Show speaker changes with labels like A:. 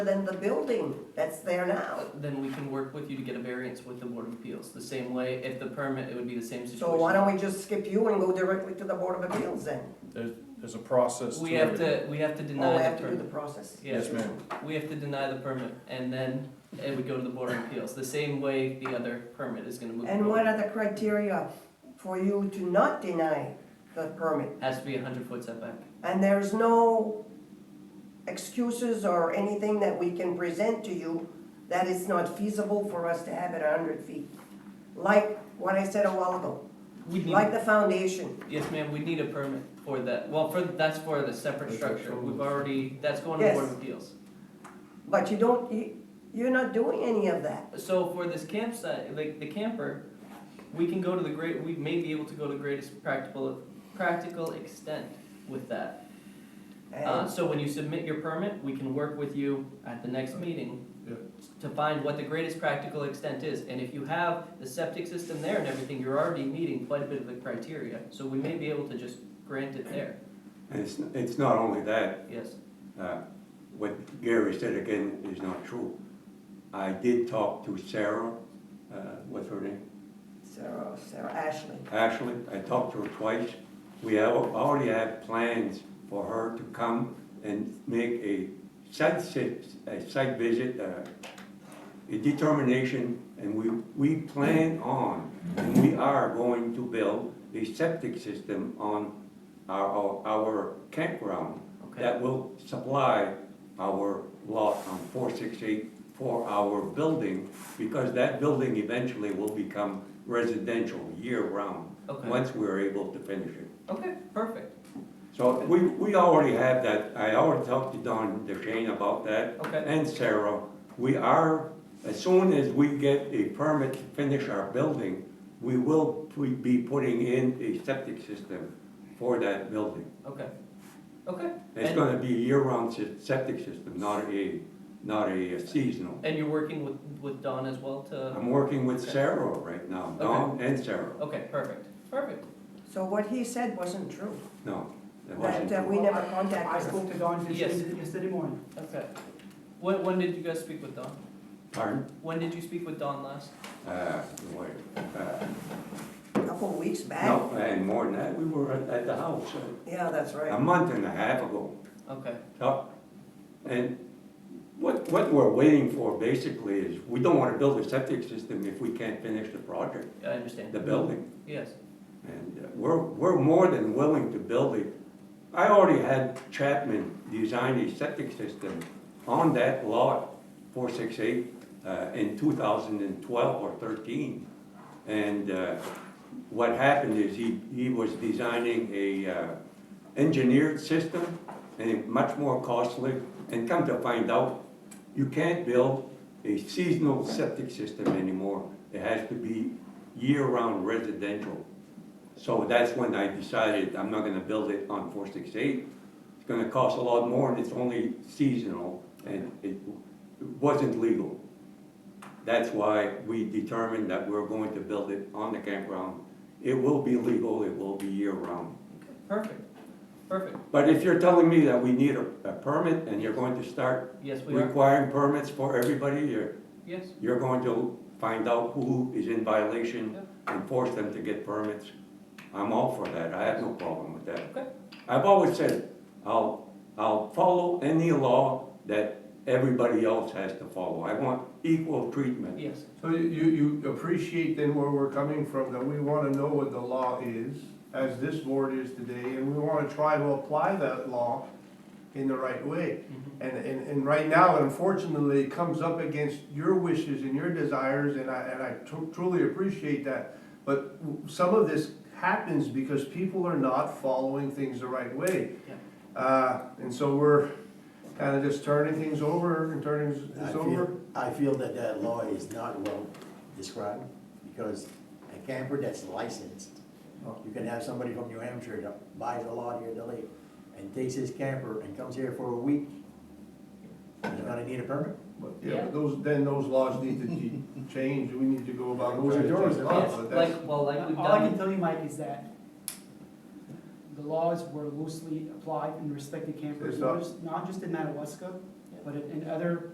A: than the building that's there now.
B: Then we can work with you to get a variance with the Board of Appeals, the same way, if the permit, it would be the same situation.
A: So why don't we just skip you and go directly to the Board of Appeals then?
C: There's, there's a process to
B: We have
C: it.
B: to, we have
A: Or
B: to
A: Oh, we
B: deny
A: have
B: the
A: to do the
B: permit.
A: process?
C: Yes,
B: Yeah,
C: ma'am.
B: we have to deny the permit, and then it would go to the Board of Appeals, the same way the other permit is gonna move.
A: And
B: forward.
A: what are the criteria for you to not deny the permit?
B: Has to be a hundred foot setback.
A: And there's no excuses or anything that we can present to you that it's not feasible for us to have it a hundred feet? Like what I said a while ago,
B: We'd
C: Mm-hmm.
A: like
B: need,
A: the foundation,
B: yes ma'am, we need a permit for that, well, for, that's for the separate
C: That's
B: structure,
C: what-
B: we've already, that's going to the
A: Yes.
B: Board of Appeals.
A: but you don't, you, you're not doing any of that.
B: So for this campsite, like the camper, we can go to the great, we may be able to go to greatest practical, practical extent with that. Uh,
A: And
C: Uh-huh.
B: so when you submit your permit, we can work with you at the next meeting
C: Yeah.
B: to find what the greatest practical extent is, and if you have the septic system there and everything, you're already meeting quite a bit of the criteria, so we may be able to just grant it there,
D: And it's, it's not only that,
B: yes.
D: uh, what Gary said again is not true. I did talk to Sarah, uh, what's her name?
A: Sarah, Sarah Ashley.
D: Ashley, I talked to her twice. We have, already have plans for her to come and make a site, sit- a site visit, uh, a determination, and we, we plan on, and we are going to build a septic system on our, our campground
B: Okay.
D: that will supply our lot on four six eight for our building, because that building eventually will become residential year-round,
B: Okay,
D: once we're able to finish it.
B: okay, perfect,
D: So we, we already have that, I already talked to Don DeShane about that,
B: okay,
D: and Sarah. We are, as soon as we get a permit to finish our building, we will pu- be putting in a septic system for that building.
B: okay, okay.
D: It's
B: And-
D: gonna be a year-round sy- septic system, not a, not a uh, seasonal.
B: And you're working with, with Don as well to,
D: I'm working with Sarah right now, Don and Sarah.
B: okay, perfect, perfect,
A: So what he said wasn't true.
D: No, that wasn't
A: That uh,
D: true.
A: we never
E: I
A: contacted him.
E: spoke to Don just
B: Yes.
E: yesterday morning.
B: okay. When, when did you guys speak with Don?
D: Pardon?
B: When did you speak with Don last?
D: Uh, wait, uh,
A: a couple of weeks back.
D: No, and more than that, we were at at the house uh,
A: Yeah, that's
D: a
A: right.
D: month and a half ago.
B: Okay,
D: So, And what, what we're waiting for basically is, we don't wanna build a septic system if we can't finish the project,
B: I understand,
D: the building.
B: yes,
D: And uh, we're, we're more than willing to build it. I already had Chapman design a septic system on that lot, four six eight, uh, in two thousand and twelve or thirteen. And, uh, what happened is he, he was designing a, uh, engineered system and it much more costly. And come to find out, you can't build a seasonal septic system anymore. It has to be year-round residential. So that's when I decided I'm not gonna build it on four six eight. It's gonna cost a lot more and it's only seasonal and it it wasn't legal. That's why we determined that we're going to build it on the campground. It will be legal, it will be year round.
B: okay, perfect, perfect.
D: But if you're telling me that we need a, a permit and you're going to start
B: Yes, we are.
D: requiring permits for everybody, you're,
B: Yes,
D: you're going to find out who is in violation
B: Yep.
D: and force them to get permits. I'm all for that, I have no problem with
B: Okay.
D: that. I've always said, I'll, I'll follow any law that everybody else has to follow. I want equal treatment.
B: yes,
C: So you, you appreciate then where we're coming from, that we wanna know what the law is, as this board is today, and we wanna try to apply that law in the right way. And, and, and right now, unfortunately, it comes up against your wishes and your desires, and I, and I tru- truly appreciate that. But w- some of this happens because people are not following things the right way.
B: Yeah.
C: Uh, and so we're kinda just turning things over and turning
F: I
C: this over.
F: feel, I feel that that law is not well described, because a camper that's licensed, you can have somebody from New Hampshire that buys a lot here at the lake, and takes his camper and comes here for a week, and they're gonna need a permit?
C: But, yeah,
B: Yeah.
C: but those, then those laws need to be changed, we need to go about.
F: Those are yours, they're
C: Oh,
B: yes,
C: but that's-
B: like, well, like we've
E: All I can
B: done,
E: tell you, Mike, is that the laws were loosely applied in respect to campers,
C: It's
E: not
C: not-
E: just, not just in Madawaska, but in, in other